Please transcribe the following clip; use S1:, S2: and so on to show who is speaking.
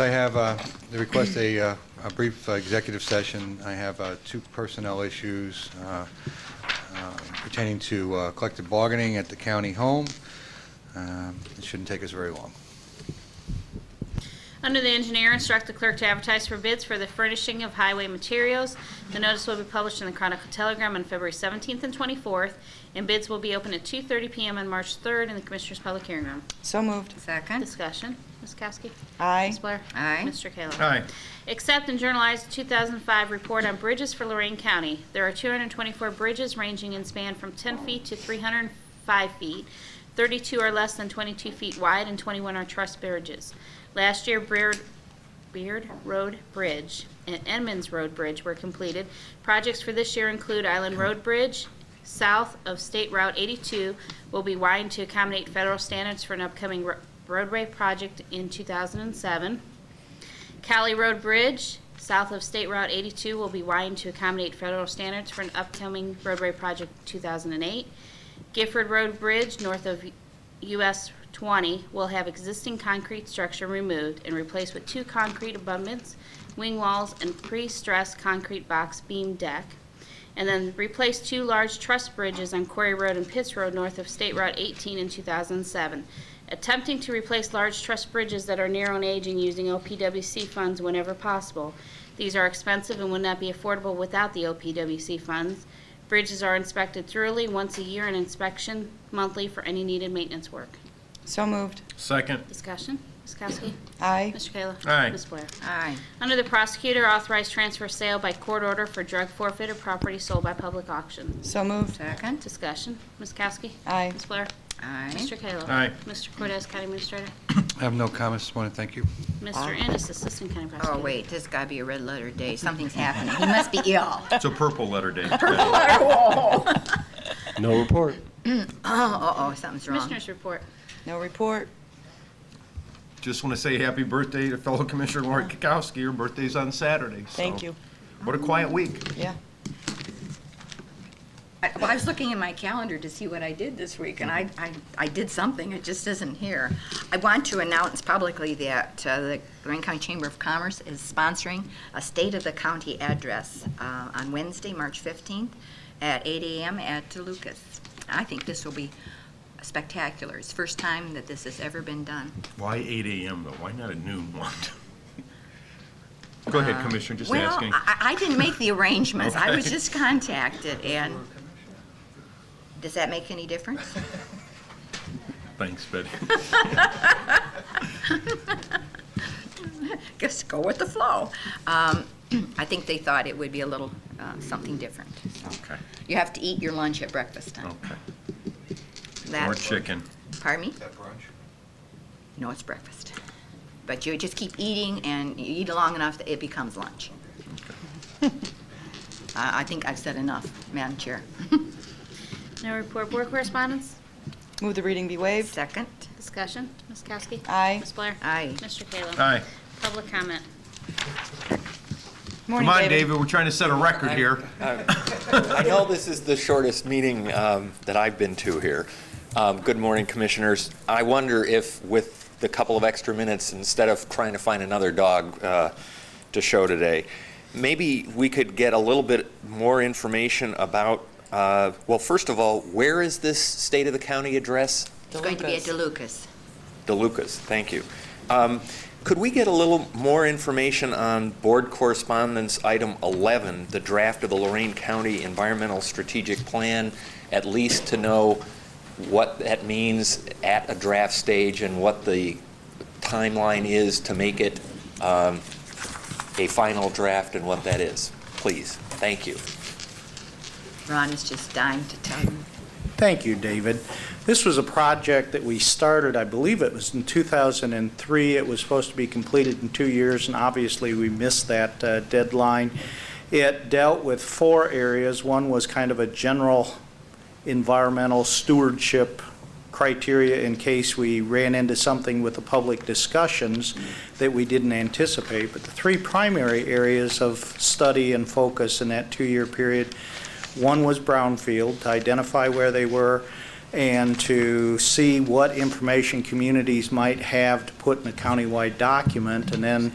S1: I have, uh, the request a uh, a brief uh, executive session. I have uh, two personnel issues uh, uh, pertaining to uh, collective bargaining at the county home. Um, It shouldn't take us very long.
S2: Under the engineer, instruct the clerk to advertise for bids for the furnishing of highway materials. The notice will be published in the Chronicle Telegram on February 17th and 24th, and bids will be open at 2:30 PM on March 3rd in the Commissioners' Public Hearing Room.
S3: So moved.
S4: Second.
S2: Discussion. Ms. Kowski?
S3: Aye.
S2: Ms. Blair?
S4: Aye.
S2: Mr. Kayla?
S5: Aye.
S2: Accept and journalize the 2005 report on bridges for Lorraine County. There are 224 bridges ranging in span from 10 feet to 305 feet. 32 are less than 22 feet wide and 21 are truss bridges. Last year, Beard, Beard Road Bridge and Edmonds Road Bridge were completed. Projects for this year include Island Road Bridge, south of State Route 82, will be widened to accommodate federal standards for an upcoming ro- roadway project in 2007. Cali Road Bridge, south of State Route 82, will be widened to accommodate federal standards for an upcoming roadway project 2008. Gifford Road Bridge, north of US 20, will have existing concrete structure removed and replaced with two concrete abutments, wing walls, and pre-stressed concrete box beam deck. And then replace two large truss bridges on Quarry Road and Pitts Road north of State Route 18 in 2007. Attempting to replace large truss bridges that are narrow and aging using OPWC funds whenever possible. These are expensive and would not be affordable without the OPWC funds. Bridges are inspected thoroughly once a year and inspection monthly for any needed maintenance work.
S3: So moved.
S5: Second.
S2: Discussion, Ms. Kowski?
S3: Aye.
S2: Mr. Kayla?
S5: Aye.
S2: Ms. Blair?
S4: Aye.
S2: Under the prosecutor, authorized transfer sale by court order for drug forfeit or property sold by public auction.
S3: So moved.
S4: Second.
S2: Discussion, Ms. Kowski?
S3: Aye.
S2: Ms. Blair?
S4: Aye.
S2: Mr. Kayla?
S5: Aye.
S2: Mr. Cortez, County Administrator?
S1: I have no comments this morning, thank you.
S2: Mr. Ennis, Assistant County Prosecutor.
S4: Oh, wait, this has got to be a red letter day. Something's happening. He must be ill.
S5: It's a purple letter day.
S6: No report.
S4: Oh, uh-oh, something's wrong.
S2: Commissioners report.
S3: No report.
S5: Just want to say happy birthday to fellow Commissioner Lori Kukowski. Her birthday's on Saturday. so-
S3: Thank you.
S5: What a quiet week.
S3: Yeah.
S4: I- Well, I was looking in my calendar to see what I did this week, and I, I, I did something, it just isn't here. I want to announce publicly that uh, the Lorraine County Chamber of Commerce is sponsoring a State of the County address uh, on Wednesday, March 15th, at 8 a.m. at DeLucas. I think this will be spectacular. It's the first time that this has ever been done.
S5: Why 8 AM though? Why not a noon one? Go ahead, Commissioner, just
S4: Well,
S5: asking.
S4: I, I didn't make the arrangements. I was
S5: Okay.
S4: just contacted, and does that make any difference?
S5: Thanks, Betty.
S4: Just go with the flow. Um, I think they thought it would be a little uh, something different.
S5: Okay,
S4: You have to eat your lunch at breakfast time.
S5: okay.
S4: That-
S5: Oh, More chicken.
S4: Pardon me?
S1: That brunch?
S4: No, it's breakfast. But you just keep eating, and you eat long enough that it becomes lunch. I I think I've said enough, Madam Chair.
S2: No report. Board correspondence?
S3: Move the reading be waived.
S4: Second?
S2: Discussion, Ms. Kowski?
S3: Aye.
S2: Ms. Blair?
S4: Aye.
S2: Mr. Kayla?
S5: Aye.
S2: Public comment.
S3: Morning,
S5: Come on, David, we're trying to set a record here.
S7: I know this is the shortest meeting um, that I've been to here. Um, Good morning, Commissioners. I wonder if with the couple of extra minutes, instead of trying to find another dog uh, to show today, maybe we could get a little bit more information about, uh, well, first of all, where is this State of the County address?
S4: It's going to be at DeLucas.
S7: DeLucas, thank you. Um, Could we get a little more information on Board Correspondence Item 11, the draft of the Lorraine County Environmental Strategic Plan, at least to know what that means at a draft stage and what the timeline is to make it um, a final draft and what that is? Please, thank you.
S4: Ron is just dying to tell you.
S8: Thank you, David. This was a project that we started, I believe it was in 2003. It was supposed to be completed in two years, and obviously, we missed that uh, deadline. It dealt with four areas. One was kind of a general environmental stewardship criteria in case we ran into something with the public discussions that we didn't anticipate. But the three primary areas of study and focus in that two-year period one was brownfield, to identify where they were, and to see what information communities might have to put in a countywide document, and then